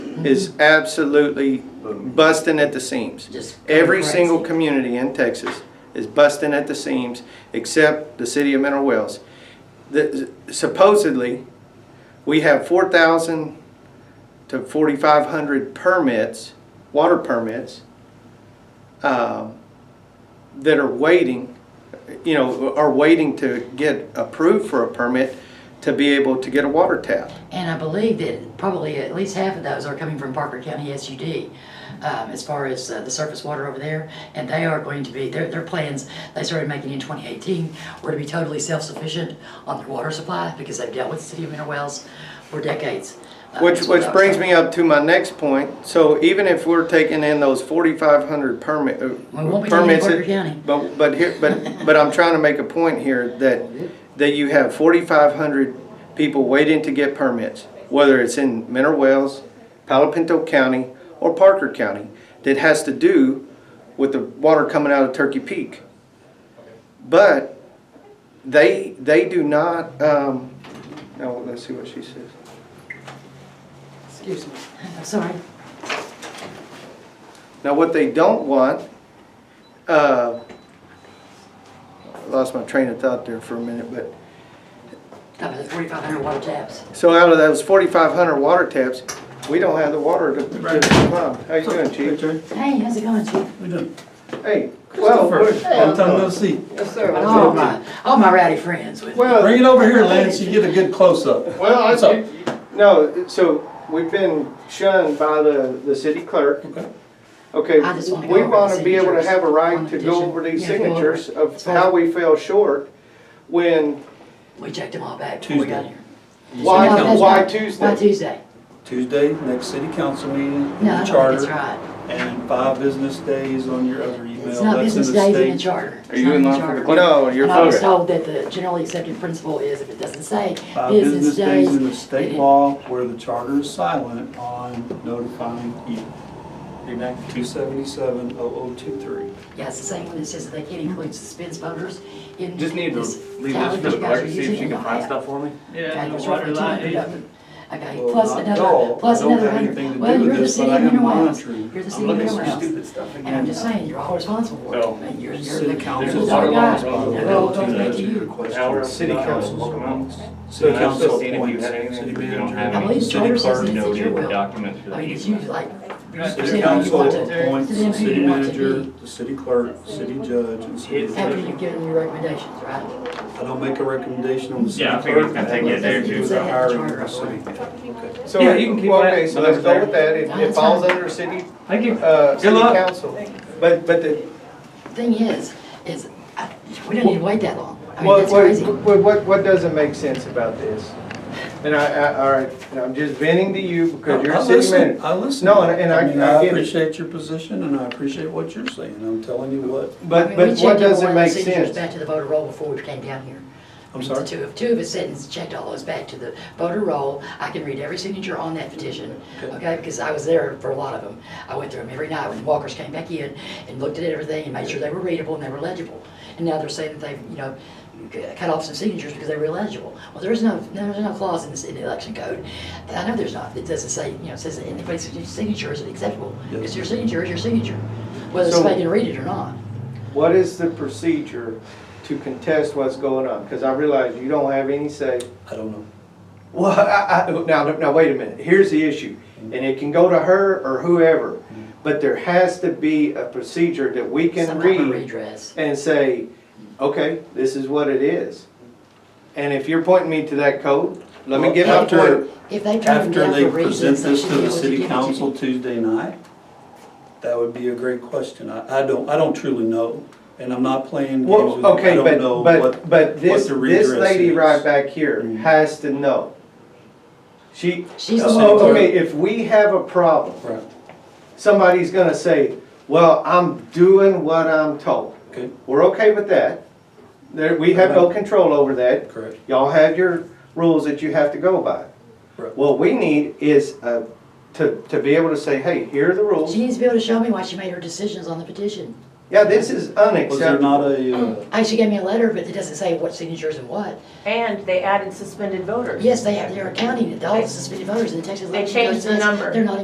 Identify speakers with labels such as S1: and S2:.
S1: is absolutely busting at the seams.
S2: Just
S1: Every
S2: crazy.
S1: single community in Texas is busting at the seams, except the city of Mineral Wells. The- Supposedly, we have four thousand to forty-five hundred permits, water permits, um, that are waiting, you know, are waiting to get approved for a permit to be able to get a water tap.
S2: And I believe that probably at least half of those are coming from Parker County SUD, um, as far as uh, the surface water over there. And they are going to be, their, their plans, they started making in 2018, were to be totally self-sufficient on their water supply because they've dealt with the city of Mineral Wells for decades. Uh,
S1: Which,
S2: that's what
S1: which
S2: I was
S1: brings
S2: told.
S1: me up to my next point, so even if we're taking in those forty-five hundred permit, uh,
S2: We won't be taking
S1: permits.
S2: Parker
S1: it-
S2: County.
S1: But, but here, but, but I'm trying to make a point here that, that you have forty-five hundred people waiting to get permits, whether it's in Mineral Wells, Palo Pinto County, or Parker County, that has to do with the water coming out of Turkey Peak. But they, they do not, um, now, let's see what she says.
S3: Excuse me.
S2: I'm sorry.
S1: Now, what they don't want, uh, I lost my train of thought there for a minute, but,
S2: That was 4,500 water taps.
S1: so out of those forty-five hundred water taps, we don't have the water to, to pump. How you doing, chief?
S2: Hey, how's it going, Chief?
S3: We done.
S1: Hey, well,
S3: First,
S1: we're-
S3: long time no see.
S4: Yes, sir.
S2: And All Oh, my, all my rowdy friends with me.
S1: well,
S3: Bring it over here, Lance, you get a good close-up.
S1: well,
S3: What's up?
S1: I, no, so, we've been shunned by the, the city clerk.
S3: Okay.
S1: Okay,
S2: I just wanna go
S1: we
S2: over
S1: want to
S2: the
S1: be able to
S2: signatures
S1: have a
S2: on
S1: right to go
S2: the petition.
S1: over these
S2: Yeah, go over it.
S1: signatures of
S2: It's fine.
S1: how we fell short when,
S2: We checked them all back before we got here.
S1: why,
S2: No, that's
S1: why
S2: not- Why
S1: Tuesday?
S2: Tuesday?
S3: Tuesday, next city council meeting,
S2: No, I
S3: in the
S2: don't think
S3: charter,
S2: it's right.
S3: and five business days on your other email.
S2: It's not
S3: That's in
S2: business
S3: the
S2: days in the
S3: state.
S2: charter. It's
S5: you
S2: not
S5: in
S2: the
S5: line for the
S2: charter.
S5: clerk?
S1: No, you're.
S2: And I was
S1: correct.
S2: told that the generally accepted principle is if it doesn't say
S3: Five
S2: business days.
S3: Uh, in the
S2: then
S3: state
S2: it-
S3: law where the charter is silent on notifying you. Enact two seventy-seven oh oh two three.
S2: Yeah, it's the same one that says that they can't include suspense voters in.
S5: Just need to
S2: this
S5: leave
S2: tally
S5: this
S2: that
S5: for the
S2: you guys
S5: clerk,
S2: are
S5: to see if
S2: using
S5: she
S2: in
S5: can
S2: the
S5: find
S2: app.
S5: stuff for me.
S2: Okay,
S6: Yeah,
S2: there's
S6: the
S2: roughly
S6: water
S2: 200
S6: line.
S2: of them. Okay,
S3: Well,
S2: plus
S3: not at
S2: another,
S3: all.
S2: plus
S3: I don't
S2: another
S3: have anything
S2: hundred.
S3: to
S2: Well,
S3: do with
S2: you're the
S3: this, but
S2: city
S3: I
S2: of
S3: am
S2: Mineral Wells.
S3: monitoring.
S2: You're the
S3: I'm
S2: city of
S3: looking
S2: Mineral
S3: for
S2: Wells.
S5: Stupid stuff
S2: And I'm just saying, you're all responsible for it.
S5: No.
S2: And You're, you're
S3: City
S2: the
S3: council.
S2: you're the
S5: Water
S2: guy.
S5: lines
S2: They're
S5: are
S2: all
S5: all
S2: going back to you.
S5: Hour,
S3: Question.
S5: city council will come out.
S3: City
S5: And I was
S3: council
S5: just seeing if you
S3: appoints,
S5: had anything,
S3: city
S5: if you don't
S3: manager.
S5: have
S2: I
S5: any.
S2: believe
S6: City
S2: charter says
S6: clerk
S2: it's at
S6: noted
S2: your
S6: the
S2: will.
S6: documents for the
S2: I mean, it's you
S6: easement.
S2: like, Yeah,
S3: City
S2: you want
S3: council
S2: to-
S3: appoints the
S2: Yeah,
S3: city
S2: you want to
S3: manager,
S2: be-
S3: the city clerk, city judge, and city
S5: It's-
S2: after
S3: attorney.
S2: you've given your recommendations, right?
S3: I don't make a recommendation on the city
S6: Yeah, I
S3: clerk.
S6: figure it's gonna take you a day or two.
S3: It's a hiring of the city.
S1: So,
S5: Yeah, you can keep
S1: well,
S5: that.
S1: okay, so let's go with that, it, it falls under city,
S5: Thank you.
S1: uh, city
S5: luck.
S1: council. But, but the,
S2: Thing is, is I- we don't need to wait that long. I mean,
S1: what,
S2: that's crazy.
S1: what, what- what, what doesn't make sense about this? And I, I, all right, and I'm just venting to you because you're
S3: I
S1: a city
S3: listen-
S1: manager.
S3: I listen.
S1: No, and- and I-
S3: mean,
S1: I
S3: I
S1: get it.
S3: appreciate your position and I appreciate what you're saying. I'm telling you what,
S2: I
S1: But,
S2: mean,
S1: but
S2: we
S1: what
S2: checked every
S1: doesn't
S2: one of the
S1: make
S2: signatures
S1: sense?
S2: Back to the voter roll before we came down here.
S3: I'm
S2: The
S3: sorry?
S2: Two of, two of his sentences, checked all those back to the voter roll. I can read every signature on that petition, okay, because I was there for a lot of them. I went through them every night when the walkers came back in and looked at everything and made sure they were readable and they were legible. And now they're saying that they've, you know, c- cut off some signatures because they were illegible. Well, there is no, no- there's no clause in this, in the election code. I know there's not. It doesn't say, you know, it says that anybody's signature is acceptable.
S3: Yes.
S2: It's your signature, is your signature, whether
S1: So-
S2: somebody can read it or not.
S1: What is the procedure to contest what's going on? Because I realize you don't have any say.
S3: I don't know.
S1: Well, I, I, now, now, wait a minute, here's the issue, and it can go to her or whoever, but there has to be a procedure that we can
S2: Some type of
S1: read
S2: redress.
S1: and say, okay, this is what it is. And if you're pointing me to that code, let me
S3: Well,
S1: get my
S3: after-
S1: point.
S2: If they turn them
S3: After
S2: down
S3: they
S2: for
S3: present
S2: reasons, they
S3: this
S2: should
S3: to
S2: be able
S3: the
S2: to
S3: city
S2: give it to you.
S3: council Tuesday night, that would be a great question. I, I don't, I don't truly know, and I'm not playing games with
S1: Well,
S3: you. I
S1: okay,
S3: don't
S1: but,
S3: know what,
S1: but, but this,
S3: the
S1: this
S3: redress
S1: lady
S3: is.
S1: right back here
S3: Mhm.
S1: has to know. She,
S2: She's the one
S1: oh,
S2: who-
S1: okay, if we have a problem,
S3: right,
S1: somebody's gonna say, well, I'm doing what I'm told.
S3: okay,
S1: We're okay with that. There, we have no control over that.
S3: correct.
S1: Y'all have your rules that you have to go by.
S3: Right.
S1: What we need is, uh, to, to be able to say, hey, here are the rules.
S2: She needs to be able to show me why she made her decisions on the petition.
S1: Yeah, this is
S3: Was there
S1: unacceptable.
S3: not a, uh,
S2: I, she gave me a letter, but it doesn't say what signatures and what.
S4: And they added suspended voters.
S2: Yes, they have, they're accounting it, all the suspended voters in the Texas
S4: They
S2: election.
S4: changed
S2: code
S4: the
S2: says
S4: number.
S2: They're not